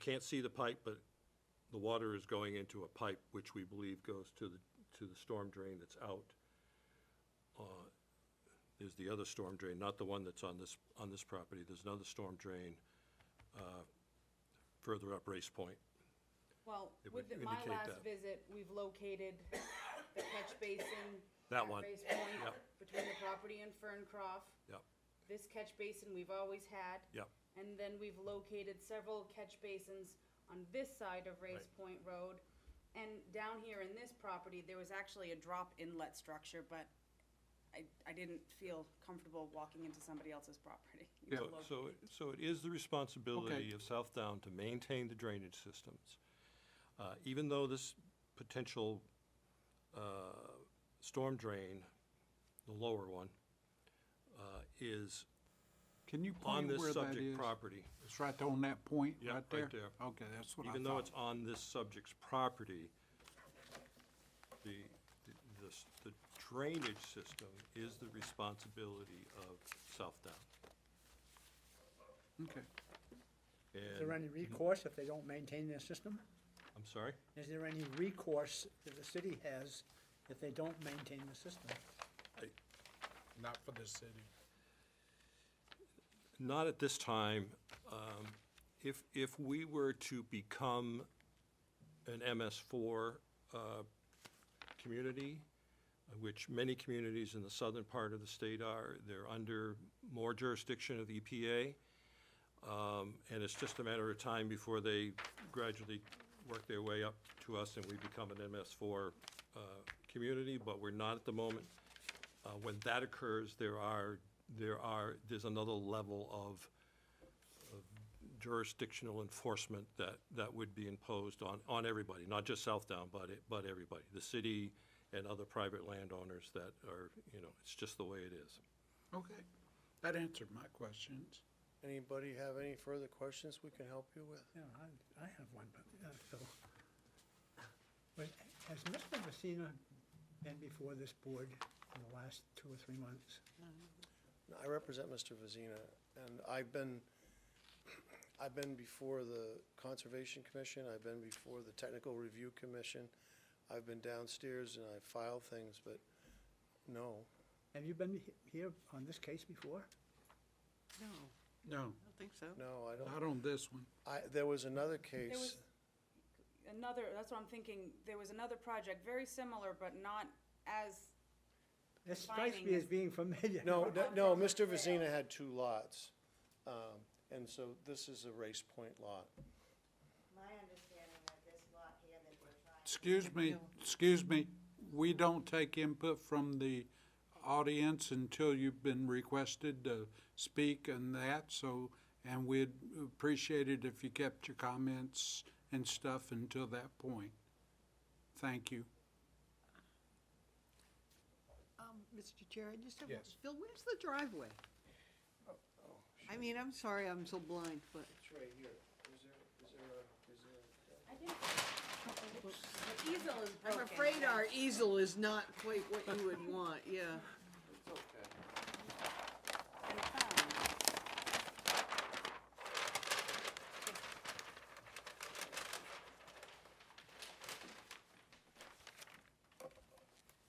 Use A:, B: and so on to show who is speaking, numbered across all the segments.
A: can't see the pipe, but the water is going into a pipe which we believe goes to the, to the storm drain that's out. Uh, There's the other storm drain, not the one that's on this, on this property. There's another storm drain uh, further up Race Point.
B: Well,
A: It
B: with
A: would
B: the- my
A: indicate
B: last
A: that.
B: visit, we've located the catch basin.
A: That
B: at
A: one.
B: Grace Point,
A: Yep.
B: between the property and Ferncroft.
A: Yep,
B: This catch basin we've always had.
A: yep,
B: And then we've located several catch basins on this side of Race
A: Right.
B: Point Road. And down here in this property, there was actually a drop inlet structure, but I, I didn't feel comfortable walking into somebody else's property. to
C: Yeah.
A: So-
B: look.
A: So, it- so it is the responsibility
C: Okay.
A: of Southdown to maintain the drainage systems. Uh, Even though this potential uh, storm drain, the lower one, uh, is
C: Can you
A: on
C: point
A: this
C: where that
A: subject
C: is?
A: property,
C: It's right on that point,
A: Yeah,
C: right
A: right
C: there?
A: there.
C: Okay, that's what I thought.
A: even though it's on this subject's property, the, the- this- the drainage system is the responsibility of Southdown.
C: Okay.
D: Is there
A: And,
D: any recourse if they don't maintain their system?
A: I'm sorry?
D: Is there any recourse that the city has if they don't maintain the system?
E: Not for the city.
A: Not at this time. Um, If, if we were to become an MS4 uh, community, which many communities in the southern part of the state are, they're under more jurisdiction of the EPA, um, and it's just a matter of time before they gradually work their way up to us and we become an MS4 uh, community, but we're not at the moment. Uh, When that occurs, there are, there are, there's another level of of jurisdictional enforcement that, that would be imposed on, on everybody, not just Southdown, but, it- but everybody. The city and other private landowners that are, you know, it's just the way it is.
C: Okay. That answered my questions.
F: Anybody have any further questions we can help you with?
D: Yeah, I, I have one, but, uh, so. But has Mr. Messina been before this board in the last two or three months?
F: No, I represent Mr. Vazina, and I've been, I've been before the Conservation Commission, I've been before the Technical Review Commission, I've been downstairs and I filed things, but no.
D: Have you been he- here on this case before?
G: No,
C: No,
G: I don't think so.
F: No, I don't,
C: not on this one.
F: I, there was another
B: There was
F: case,
B: another, that's what I'm thinking, there was another project very similar, but not as,
D: This strikes
B: Finding
D: me as
B: is-
D: being familiar.
F: no, no, no, Mr. Vazina had two lots, um, and so this is a Race Point lot.
H: My understanding that this lot here that we're trying
C: Excuse me, excuse me, we don't take input from the audience until you've been requested to speak and that, so, and we'd appreciate it if you kept your comments and stuff until that point. Thank you.
G: Um, Mr. Chair, I just have,
E: Yes.
G: Bill, where's the driveway? I mean, I'm sorry, I'm so blind, but
F: Oh, It's right here. Is there, is there a, is there
B: I think, the easel is
G: I'm
B: broken.
G: afraid our easel is not quite what you would want, yeah.
B: And found.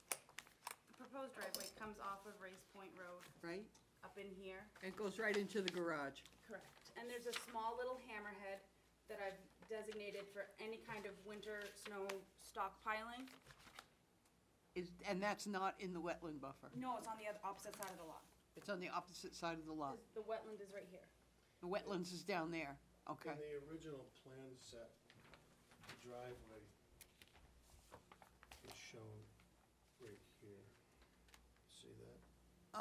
B: The proposed driveway comes off of Race Point Road,
G: Right?
B: up in here.
G: It goes right into the garage.
B: Correct. And there's a small little hammerhead that I've designated for any kind of winter snow stockpiling.
G: Is, and that's not in the wetland buffer.
B: No, it's on the other, opposite side of the lot.
G: It's on the opposite side of the lot.
B: The wetland is right here.
G: The wetlands is down there. Okay.
F: In the original plan set, the driveway is shown right here. See that?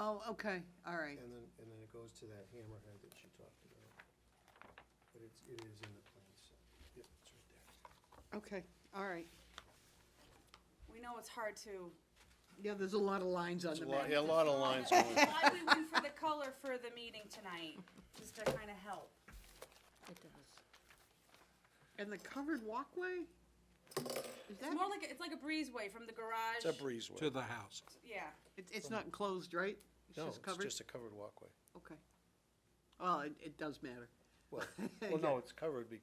G: Oh, okay, all right.
F: And then, and then it goes to that hammerhead that you talked about. But it's, it is in the plan set. Yep, it's right there.
G: Okay, all right.
B: We know it's hard to
G: Yeah, there's a lot of lines on the map.
F: yeah, a lot of lines going.
B: Why we went for the color for the meeting tonight, just to kind of help.
G: It does. And the covered walkway? Is
B: It's
G: that,
B: more like, a- it's like a breezeway from the garage.
F: It's a breezeway.
C: To the house.
B: Yeah,
G: it- it's not enclosed, right? It's
F: No,
G: just
F: it's
G: covered?
F: just a covered walkway.
G: Okay. Well, it, it does matter.
F: Well, well, no,
G: Yeah.
F: it's covered because